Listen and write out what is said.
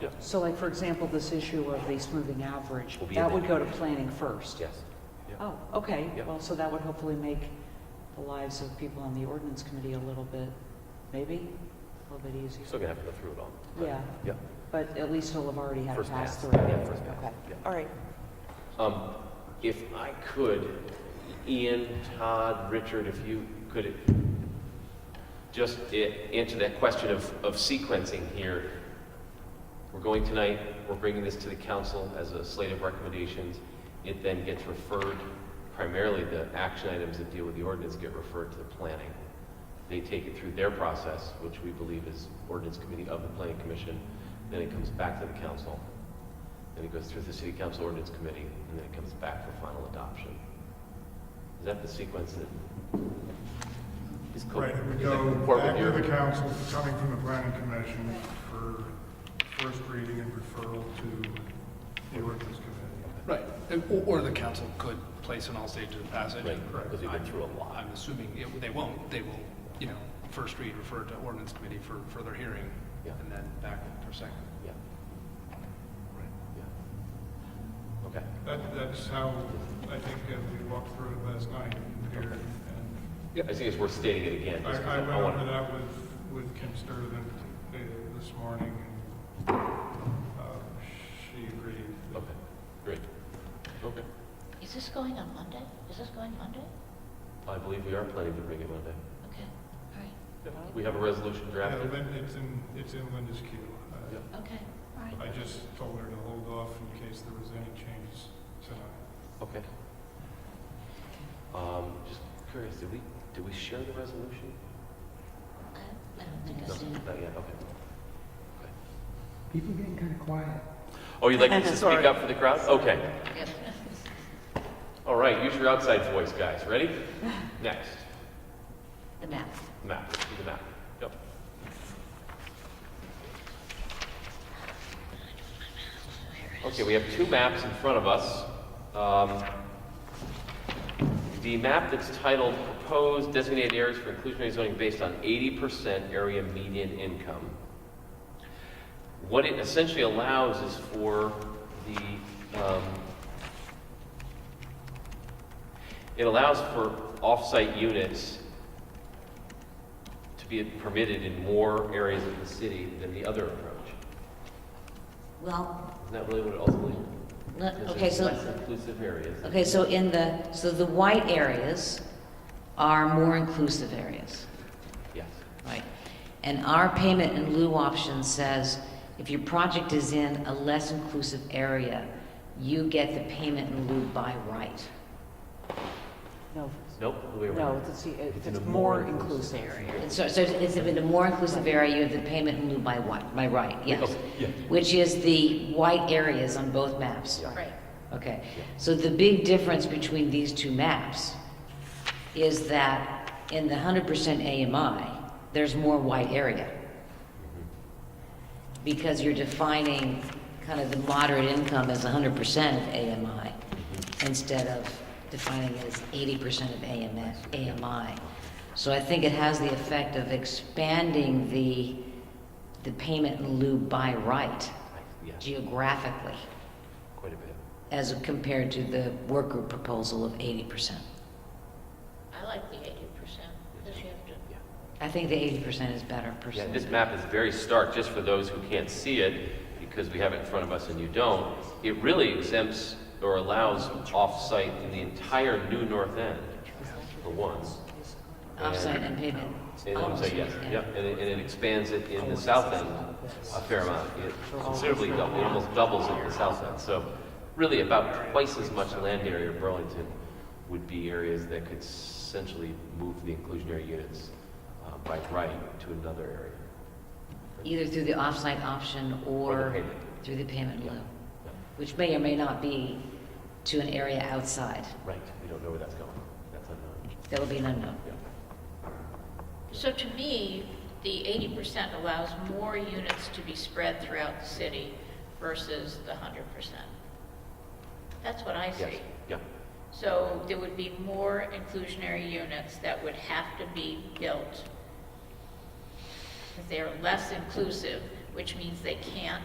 Yeah. So like, for example, this issue of the smoothing average, Will be that in would go there. to planning first? Yes. Yeah. Oh, okay. Yeah. Well, so that would hopefully make the lives of people on the ordinance committee a little bit, maybe, a little bit easier. Still gonna have to go through it all. but- Yeah. Yeah. But at least it'll have already had a First pass pass. through. Yeah, first pass. Okay. Yeah. All right. Um, If I could, Ian, Todd, Richard, if you could just i- answer that question of, of sequencing here. We're going tonight, we're bringing this to the council as a slate of recommendations. It then gets referred, primarily the action items that deal with the ordinance get referred to the planning. They take it through their process, which we believe is ordinance committee of the planning commission. Then it comes back to the council. Then it goes through the city council ordinance committee, and then it comes back for final adoption. Is that the sequence that is co- Right, it would is that go corporate back to here? the council, coming from the planning commission for first reading and referral to the ordinance committee. Right, and- or, or the council could place an all stages of passage. Right, because we've been through a lot. I'm assuming, it- they won't, they will, you know, first read, refer to ordinance committee for further hearing, Yeah. and then back for second. Yeah, yeah. Okay, That, that's how, I think, uh, we walked through it last night here. And I just think it's worth stating it again. just 'cause I, I went wanna- over that with, with Kim Sturtevant uh, this morning, and, uh, she agreed. Okay, great. Okay. Is this going on Monday? Is this going Monday? I believe we are planning to bring it Monday. Okay, all We have a resolution Yeah, drafted. Lin- it's in, it's in Linda's queue. Uh, Yeah. right, okay, all right. I just told her to hold off in case there was any changes tonight. Okay. Um, just curious, did we, did we share the resolution? I I don't think No, I did. Not yet, okay. People getting kind of quiet. Oh, you'd like us to speak up for the crowd? Okay. Yep. All right, use your outside voice, guys. Ready? Next, The map. map, do the map. Yep. Okay, we have two maps in front of us. Um, The map that's titled Proposed Designated Areas for Inclusionary Zoning Based on 80% Area Median Income. What it essentially allows is for the, um, it allows for off-site units to be permitted in more areas of the city than the other approach. Well, Isn't that really what it ultimately? le- is? Uh, okay, It's so, Less inclusive areas. okay, so in the, so the white areas are more inclusive areas, Yes. right? And our payment in lieu option says, if your project is in a less inclusive area, you get the payment in lieu by right. No, Nope, the way no, around. it's, the- It's it's in a more more inclusive inclusive. And So, so it's if in a more inclusive area, you have the payment in lieu by what, by right, yes. Okay, yeah. Which is the white areas on both maps. Right. Okay, so the big difference between these two maps is that in the hundred percent AMI, there's more white area. Because you're defining kind of the moderate income as hundred percent of AMI instead of defining it as eighty percent of AMF, AMI. So I think it has the effect of expanding the, the payment in lieu by right Yes, geographically quite a bit. as compared to the work group proposal of 80%. I like the eighty percent, because you have to, Yeah. I think the 80% is better Yeah, personally. this map is very stark, just for those who can't see it, because we have it in front of us and you don't. It really exempts or allows off-site in the entire new north end, for one. Offsite and payment. And I'm saying, yes, yep, and it, and it expands it in the south end a fair amount. It considerably doubles, it almost doubles it in the south end. So really about twice as much land area of Burlington would be areas that could essentially move the inclusionary units uh, by right to another area. Either through the offsite option or payment. through the payment in lieu, Yeah. which may or may not be to an area outside. Right, we don't know where that's going. That's unknown. That would be an unknown. Yeah. so to me, the eighty percent allows more units to be spread throughout the city versus the hundred percent. That's what I Yes, see. yeah, So there would be more inclusionary units that would have to be built. They're less inclusive, which means they can't